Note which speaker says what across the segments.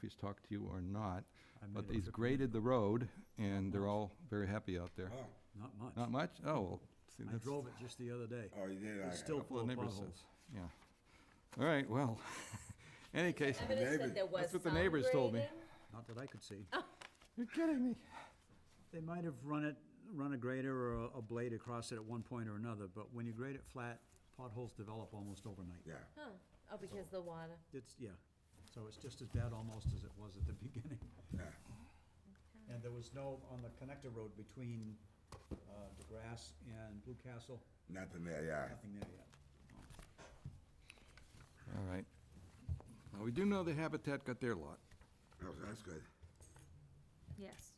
Speaker 1: she's talked to you or not,
Speaker 2: I made
Speaker 1: but
Speaker 2: it
Speaker 1: he's
Speaker 2: for-
Speaker 1: graded the road, and they're all very happy out there.
Speaker 3: Oh,
Speaker 2: Not much.
Speaker 1: Not much? Oh, well, see,
Speaker 2: I
Speaker 1: that's
Speaker 2: drove it just the other day.
Speaker 3: oh, you did, I,
Speaker 2: It's still
Speaker 1: what
Speaker 2: full
Speaker 1: the
Speaker 2: of
Speaker 1: neighbor says.
Speaker 2: potholes.
Speaker 1: Yeah. All right, well, any case,
Speaker 4: Evidence
Speaker 3: neighbor-
Speaker 4: that there was
Speaker 1: that's what the
Speaker 4: some
Speaker 1: neighbors told me.
Speaker 4: grading?
Speaker 2: Not that I could see.
Speaker 1: you're kidding me.
Speaker 2: They might have run it, run a grader or a- a blade across it at one point or another, but when you grade it flat, potholes develop almost overnight.
Speaker 3: yeah,
Speaker 4: Huh. Oh, because the water.
Speaker 2: It's, yeah, so it's just as bad almost as it was at the beginning.
Speaker 3: yeah.
Speaker 2: And there was no, on the connector road between uh, DeGrasse and Blue Castle,
Speaker 3: Nothing there, yeah.
Speaker 2: nothing there yet.
Speaker 1: All right. Now, we do know the Habitat got their lot.
Speaker 3: Oh, that's good.
Speaker 4: Yes.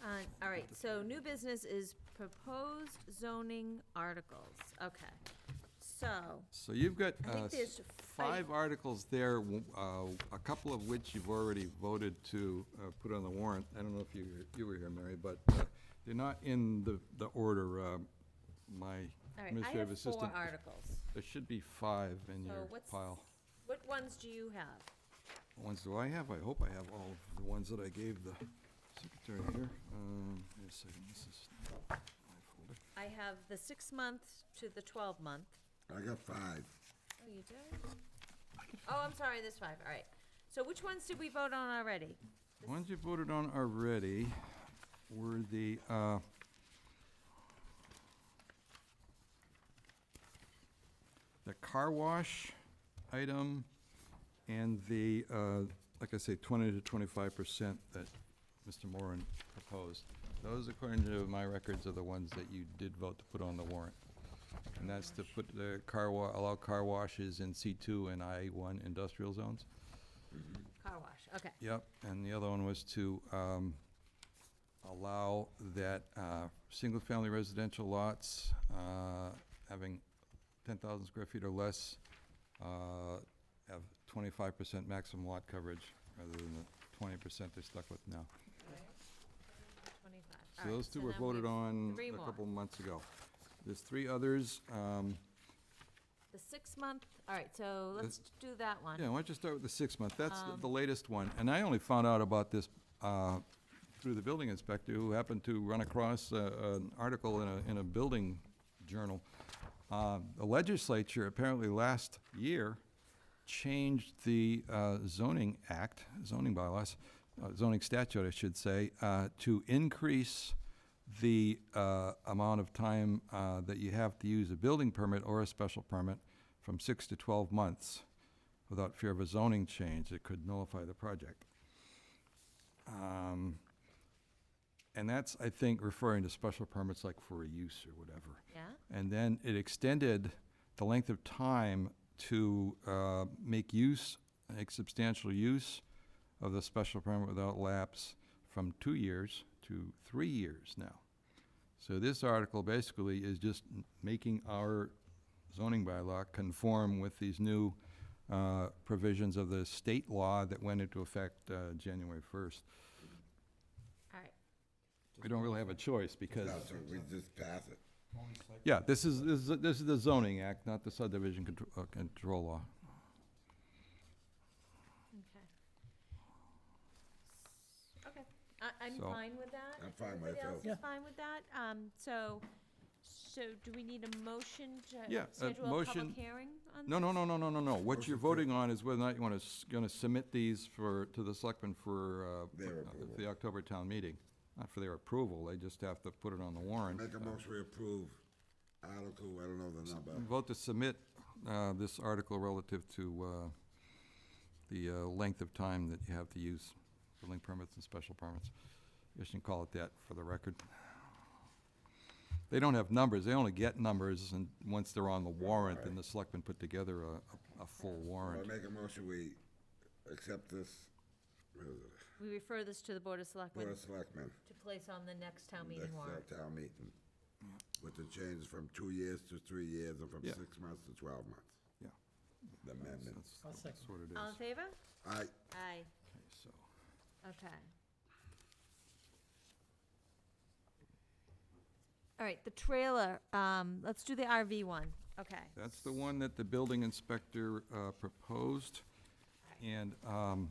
Speaker 4: Uh, All right, so new business is proposed zoning articles. Okay. So,
Speaker 1: So you've got
Speaker 4: I think
Speaker 1: uh, s-
Speaker 4: there's
Speaker 1: five articles there, w- uh, a couple of which you've already voted to uh, put on the warrant. I don't know if you, were- you were here, Mary, but uh, they're not in the, the order. uh, My
Speaker 4: all right, I
Speaker 1: administrative
Speaker 4: have
Speaker 1: assistant.
Speaker 4: four articles.
Speaker 1: There should be five in
Speaker 4: So
Speaker 1: your
Speaker 4: what's-
Speaker 1: pile.
Speaker 4: What ones do you have?
Speaker 1: What Ones do I have? I hope I have all of the ones that I gave the secretary here. Um, Wait a second, this is my folder.
Speaker 4: I have the six-month to the twelve-month.
Speaker 3: I got five.
Speaker 4: Oh, you do? Oh, I'm sorry, there's five, all right. So which ones did we vote on already?
Speaker 1: The Ones you voted on already were the, uh, the car wash item and the, uh, like I say, twenty to twenty-five percent that Mr. Moran proposed. Those, according to my records, are the ones that you did vote to put on the warrant. And that's to put the car wa, allow car washes in C two and I one industrial zones.
Speaker 4: Car wash, okay.
Speaker 1: Yep, and the other one was to um, allow that uh, single-family residential lots uh, having 10,000 square feet or less uh, have 25% maximum lot coverage rather than the 20% they're stuck with now.
Speaker 4: Twenty-five, all
Speaker 1: So
Speaker 4: right.
Speaker 1: those two
Speaker 4: so
Speaker 1: were
Speaker 4: now we
Speaker 1: voted
Speaker 4: have
Speaker 1: on
Speaker 4: three
Speaker 1: a
Speaker 4: more.
Speaker 1: couple months ago. There's three others. um,
Speaker 4: The six-month, all right, so let's do that one.
Speaker 1: Yeah, why don't you start with the six-month? That's the- the latest one. And I only found out about this uh, through the building inspector, who happened to run across uh, an article in a, in a building journal. Uh, The legislature apparently last year changed the uh, zoning act, zoning bylaws, uh, zoning statute, I should say, uh, to increase the uh, amount of time uh, that you have to use a building permit or a special permit from six to 12 months without fear of a zoning change that could nullify the project. Um, And that's, I think, referring to special permits like for a use or whatever.
Speaker 4: Yeah?
Speaker 1: And then it extended the length of time to uh, make use, make substantial use of the special permit without lapse from two years to three years now. So this article basically is just m- making our zoning bylaw conform with these new uh, provisions of the state law that went into effect uh, January 1st.
Speaker 4: All right,
Speaker 1: We don't really have a choice because,
Speaker 3: No, so we just pass it.
Speaker 1: yeah, this is, this is- this is the zoning act, not the subdivision contr- uh, control law.
Speaker 4: okay. Okay, I, I'm
Speaker 1: So-
Speaker 4: fine with that.
Speaker 3: I'm
Speaker 4: If
Speaker 3: fine
Speaker 4: everybody
Speaker 3: myself.
Speaker 4: else is fine with that, um, so, so do we need a motion
Speaker 1: Yeah,
Speaker 4: to
Speaker 1: a
Speaker 4: schedule a
Speaker 1: motion-
Speaker 4: public hearing on?
Speaker 1: No, no, no, no, no, no, no. What you're
Speaker 3: Motion to-
Speaker 1: voting on is whether or not you want to, going to submit these for, to the selectmen for uh,
Speaker 3: Their
Speaker 1: uh,
Speaker 3: approval.
Speaker 1: the October town meeting. Not for their approval, they just have to put it on the warrant.
Speaker 3: Make a motion to approve Article, I don't know the number.
Speaker 1: Vote to submit uh, this article relative to uh, the uh, length of time that you have to use building permits and special permits. You should call it that for the record. They don't have numbers, they only get numbers, and once they're on the warrant, then the selectmen put together a, a- a full
Speaker 3: I
Speaker 1: warrant.
Speaker 3: make a motion we accept this, uh,
Speaker 4: We refer this to the Board of Selectmen
Speaker 3: Board of
Speaker 4: to
Speaker 3: Selectmen.
Speaker 4: place on the next town
Speaker 3: Next
Speaker 4: meeting warrant.
Speaker 3: uh, town meeting. With the change from two years to three years and from
Speaker 1: Yeah.
Speaker 3: six months to twelve months,
Speaker 1: Yeah,
Speaker 3: the amendment.
Speaker 1: that's, that's what it is.
Speaker 4: All in favor?
Speaker 3: I,
Speaker 4: Aye,
Speaker 1: Okay, so,
Speaker 4: okay. All right, the trailer, um, let's do the RV one, okay.
Speaker 1: that's the one that the building inspector uh, proposed, and um,